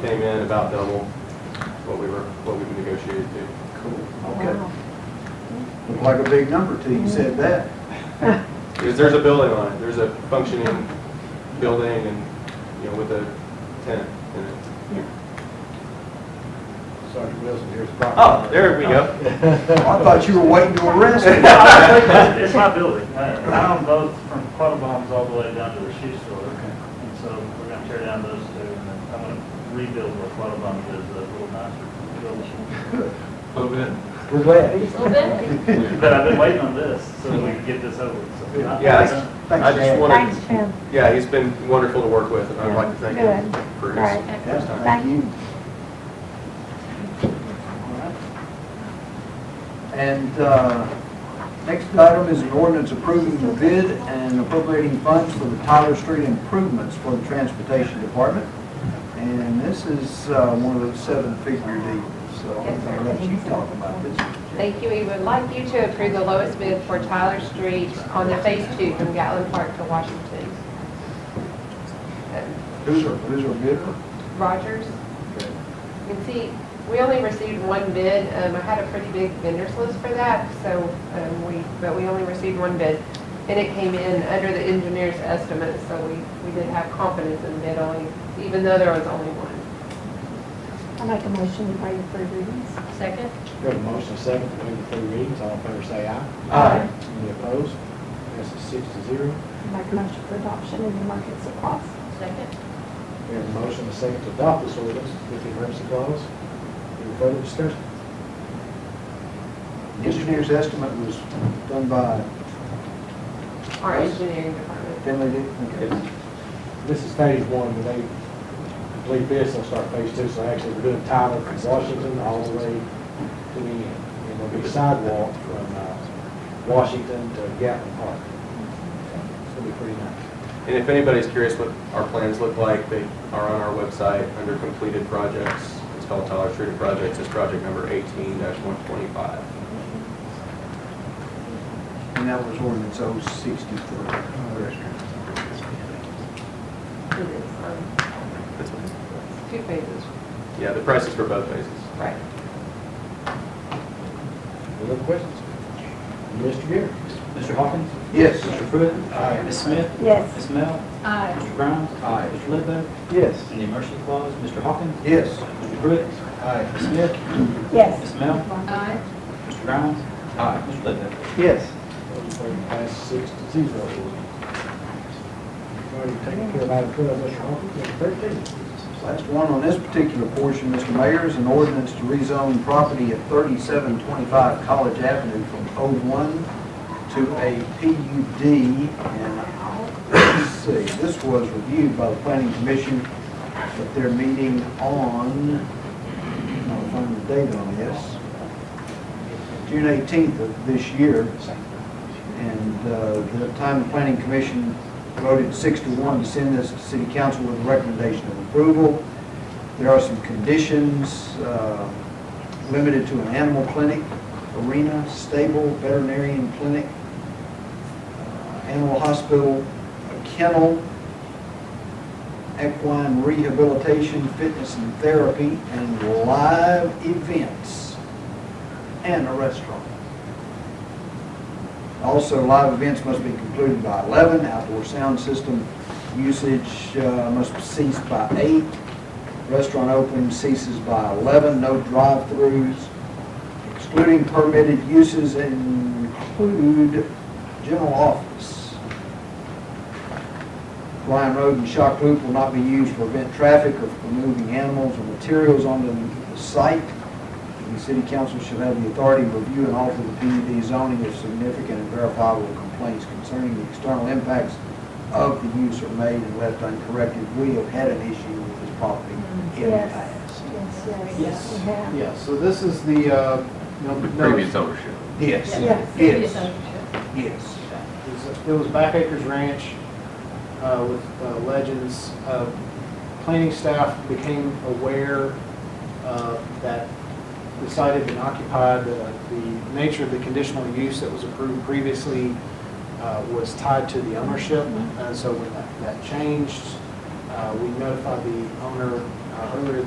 came in about double what we were, what we negotiated to. Cool, okay. Wow. Looked like a big number to you, said that. Because there's a building on it, there's a functioning building and, you know, with a tenant in it. Sergeant Wilson, here's the property. Oh, there we go. I thought you were waiting to arrest me. It's my building. I own both from Quattlebaum's all the way down to the shoe store. And so we're gonna tear down those two and then I'm gonna rebuild where Quattlebaum is, a little nicer building. We're glad. A little bit. But I've been waiting on this so we can get this over. with. So I- Yeah, Thanks, I just Dad. wanted, Thanks, Jim. yeah, he's been wonderful to work with, and I'd like to thank him Good. for his Right. Yeah, time. Thank you. And uh, next item is an ordinance approving the bid and appropriating funds for the Tyler Street improvements for the Transportation Department. And this is uh, one of those seven-figure deals, so I'm going to let you talk about this. Thank you. We would like you to approve the lowest bid for Tyler Street on the phase two from Gatlin Park to Washington. Um, Who's our, who's our bidder? Rogers. You can see, we only received one bid. Um, I had a pretty big vendors list for that, so, um, we, but we only received one bid. And it came in under the engineer's estimate, so we, we did have confidence in the bid only, even though there was only one. I make a motion to waive three readings. Second? Got a motion and second to waive the three readings, all in favor say aye. Aye. Any opposed? Passes six to zero. I Make a motion for adoption in the markets across. Second. We have a motion and second to adopt this ordinance with the emergency clause. Any further discussion? Engineer's estimate was done by Our engineering department. Finley Dick. It's- This is phase one, when they complete this, they'll start phase two, so actually we're doing Tyler from Washington all the way to the end. And there'll be sidewalk from uh, Washington to Gatlin Park. It's gonna be pretty nice. And if anybody's curious what our plans look like, they are on our website under completed projects. It's called Tyler Street Projects, it's project number eighteen one twenty-five. And that was ordinance 063. It is, um, it's two phases. Yeah, the prices for both phases. Right. Any other questions? Mr. Garrett? Mr. Hawkins? Yes. Mr. Pruitt? Aye. Ms. Smith? Yes. Ms. Mel? Aye. Mr. Grimes? Aye. Mr. Ledbetter? Yes. And the emergency clause, Mr. Hawkins? Yes. Mr. Pruitt? Aye. Ms. Smith? Yes. Ms. Mel? Aye. Mr. Grimes? Aye. Mr. Ledbetter? Yes. Motion passes six to zero. Already taken care of item twelve, Mr. Hawkins, item thirteen. Last one on this particular portion, Mr. Mayor, is an ordinance to rezone property at 3725 College Avenue from O1 to a PUD. And let's see, this was reviewed by the planning commission at their meeting on, I'll find the date on this, June 18th of this year. And uh, the time the planning commission voted six to one to send this to city council with a recommendation of approval. There are some conditions, uh, limited to an animal clinic, arena, stable, veterinarian clinic, uh, animal hospital, a kennel, equine rehabilitation, fitness and therapy, and live events, and a restaurant. Also, live events must be concluded by 11, outdoor sound system usage uh, must cease by 8, restaurant opening ceases by 11, no drive-throughs, excluding permitted uses include general office. Ryan Road and Shock Loop will not be used to prevent traffic or for moving animals or materials onto the site. The city council shall have the authority to review and alter the PUD zoning if significant and verifiable complaints concerning the external impacts of the use are made and left uncorrected. We have had an issue with this property in the Yes. past. Yes, yes. Yes. Yeah. Yeah, so this is the, uh, ownership. Yes. Yes. Yes, yes. It was- It was Back Acres Ranch uh, with uh, Legends. Uh, Planning staff became aware uh, that decided and occupied uh, the nature of the conditional use that was approved previously uh, was tied to the ownership. And so when that- that changed, uh, we notified the owner uh, earlier